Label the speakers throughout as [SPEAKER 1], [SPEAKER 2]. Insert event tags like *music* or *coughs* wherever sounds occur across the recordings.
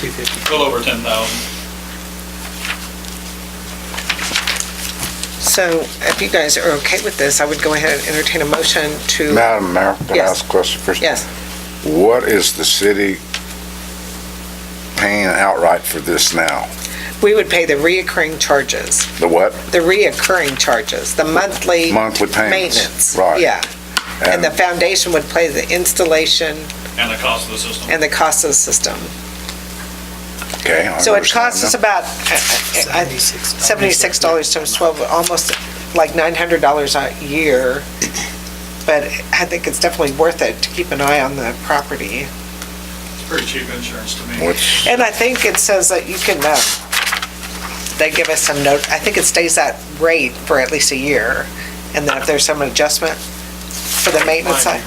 [SPEAKER 1] 250.
[SPEAKER 2] a little over 10,000.
[SPEAKER 3] So if you guys are okay with this, I would go ahead and entertain a motion to,
[SPEAKER 4] Madam Mayor, can I
[SPEAKER 3] Yes.
[SPEAKER 4] ask a question first?
[SPEAKER 3] yes,
[SPEAKER 4] What is the city paying outright for this now?
[SPEAKER 3] we would pay the reoccurring charges,
[SPEAKER 4] The what?
[SPEAKER 3] the reoccurring charges, the monthly
[SPEAKER 4] Monthly payments?
[SPEAKER 3] maintenance.
[SPEAKER 4] Right.
[SPEAKER 3] Yeah, and the foundation would pay the installation
[SPEAKER 2] and the cost of the system.
[SPEAKER 3] and the cost of the system.
[SPEAKER 4] Okay, I
[SPEAKER 3] So it
[SPEAKER 4] understand
[SPEAKER 3] costs us
[SPEAKER 4] that.
[SPEAKER 3] about uh, uh, uh, $76 times 12, almost like $900 a year, but I think it's definitely worth it to keep an eye on the property.
[SPEAKER 2] It's pretty cheap insurance to me.
[SPEAKER 4] Which,
[SPEAKER 3] And I think it says that you can, uh, they give us some note, I think it stays that rate for at least a year, and then if there's some adjustment for the maintenance side.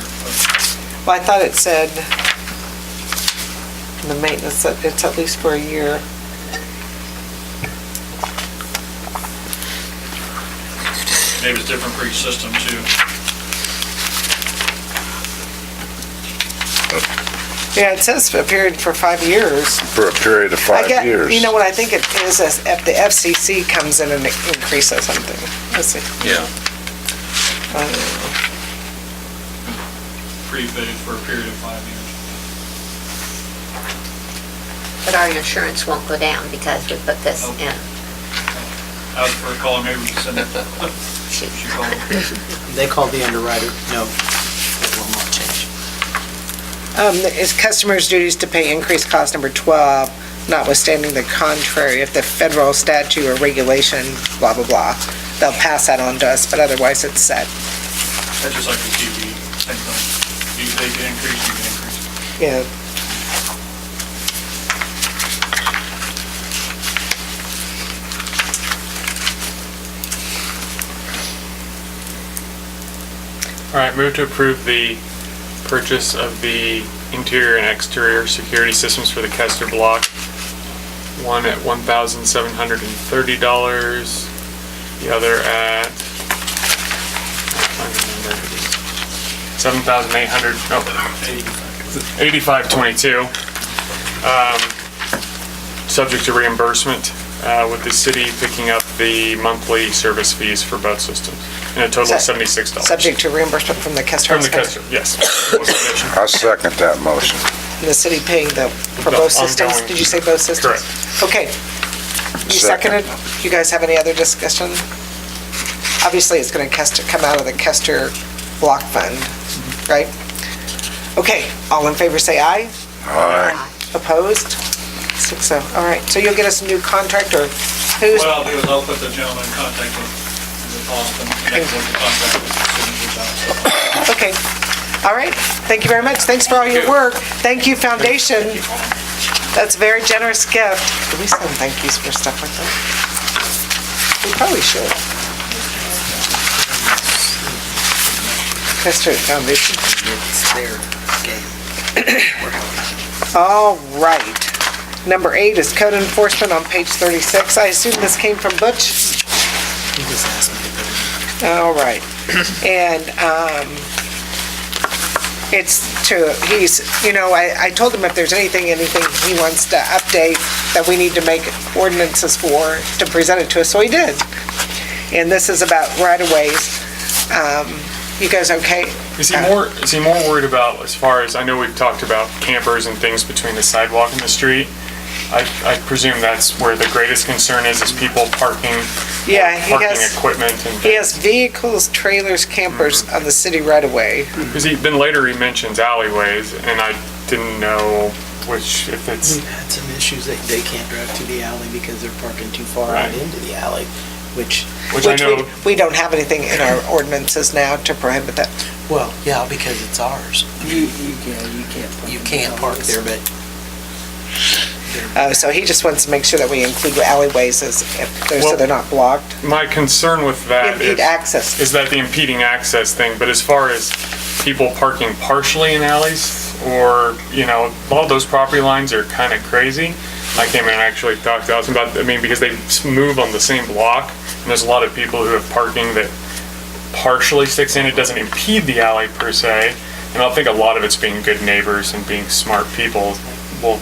[SPEAKER 3] Well, I thought it said, the maintenance, that it's at least for a year.
[SPEAKER 2] Maybe it's different for each system too.
[SPEAKER 3] Yeah, it says for a period for five years.
[SPEAKER 4] for a period of
[SPEAKER 3] I
[SPEAKER 4] five
[SPEAKER 3] get-
[SPEAKER 4] years.
[SPEAKER 3] You know what I think it is, is if the FCC comes in and increases something. Let's see.
[SPEAKER 2] Yeah.
[SPEAKER 3] Uh,
[SPEAKER 2] Prepaid for a period of five years.
[SPEAKER 5] But our insurance won't go down because we put this in.
[SPEAKER 2] I was for calling, maybe we could send it,
[SPEAKER 5] Shoot.
[SPEAKER 2] she called.
[SPEAKER 1] They called the underwriter, no, it will not change.
[SPEAKER 3] Um, is customers' duties to pay increased cost number 12, notwithstanding the contrary, if the federal statute or regulation, blah, blah, blah. They'll pass that on to us, but otherwise it's set.
[SPEAKER 2] That's just like the TV, same thing. You, they can increase, you can increase.
[SPEAKER 3] Yeah.
[SPEAKER 6] All right, move to approve the purchase of the interior and exterior security systems for the Kester Block. One at one thousand seven hundred and thirty dollars, the other at seven thousand eight hundred, no, eighty-five twenty-two. Um, Subject to reimbursement, uh, with the city picking up the monthly service fees for both systems, in a total of
[SPEAKER 3] Sub-
[SPEAKER 6] seventy-six dollars.
[SPEAKER 3] Subject to reimbursement from the customer.
[SPEAKER 6] From the customer, yes.
[SPEAKER 3] *coughs*
[SPEAKER 4] I second that motion.
[SPEAKER 3] And the city paying the, for
[SPEAKER 6] The
[SPEAKER 3] both systems.
[SPEAKER 6] ongoing-
[SPEAKER 3] Did you say both systems? Okay. You seconded?
[SPEAKER 4] Second.
[SPEAKER 3] You guys have any other discussion? Obviously, it's going to come out of the Kester Block Fund, right? Okay, all in favor, say aye.
[SPEAKER 4] All right,
[SPEAKER 3] Opposed? Six oh, all right. So you'll get us a new contract or who's,
[SPEAKER 2] What I'll do is I'll put the gentleman in contact with, with Austin, connect with the contact with the signature job.
[SPEAKER 3] okay. All right. Thank you very much. Thanks for all your work. Thank you, Foundation. That's a very generous gift. Do we send thank yous for stuff like that? We probably should. That's true, Foundation.
[SPEAKER 1] It's their game. We're helping.
[SPEAKER 3] All right. Number eight is code enforcement on page 36. I assume this came from Butch?
[SPEAKER 1] He just asked me to put it
[SPEAKER 3] All right. And um, it's to, he's, you know, I, I told him if there's anything, anything he wants to update that we need to make ordinances for, to present it to us, so he did. And this is about right-of-ways. Um, You guys okay?
[SPEAKER 6] Is he more, is he more worried about, as far as, I know we've talked about campers and things between the sidewalk and the street. I, I presume that's where the greatest concern is, is people parking,
[SPEAKER 3] Yeah, he
[SPEAKER 6] parking
[SPEAKER 3] has,
[SPEAKER 6] equipment and
[SPEAKER 3] he
[SPEAKER 6] things.
[SPEAKER 3] has vehicles, trailers, campers
[SPEAKER 6] Mm-hmm.
[SPEAKER 3] on the city right-of-way.
[SPEAKER 6] Because he, then later he mentions alleyways, and I didn't know which, if it's,
[SPEAKER 1] We've had some issues that they can't drive to the alley because they're parking too far out
[SPEAKER 6] Right.
[SPEAKER 1] into the alley, which,
[SPEAKER 6] which I
[SPEAKER 3] we-
[SPEAKER 6] know,
[SPEAKER 3] We don't have anything in our ordinances now to prohibit that.
[SPEAKER 1] well, yeah, because it's ours.
[SPEAKER 7] You, you can, you can't. put
[SPEAKER 1] You
[SPEAKER 7] them
[SPEAKER 1] can't
[SPEAKER 7] down.
[SPEAKER 1] park there, but
[SPEAKER 3] Uh, So he just wants to make sure that we include alleyways as, if they're- so
[SPEAKER 6] Well-
[SPEAKER 3] they're not blocked,
[SPEAKER 6] my concern with that
[SPEAKER 3] impede
[SPEAKER 6] is,
[SPEAKER 3] access.
[SPEAKER 6] is that the impeding access thing, but as far as people parking partially in alleys, or, you know, all those property lines are kind of crazy. I came in and actually talked to Austin about, I mean, because they s- move on the same block, and there's a lot of people who have parking that partially sticks in, it doesn't impede the alley per se, and I think a lot of it's being good neighbors and being smart people will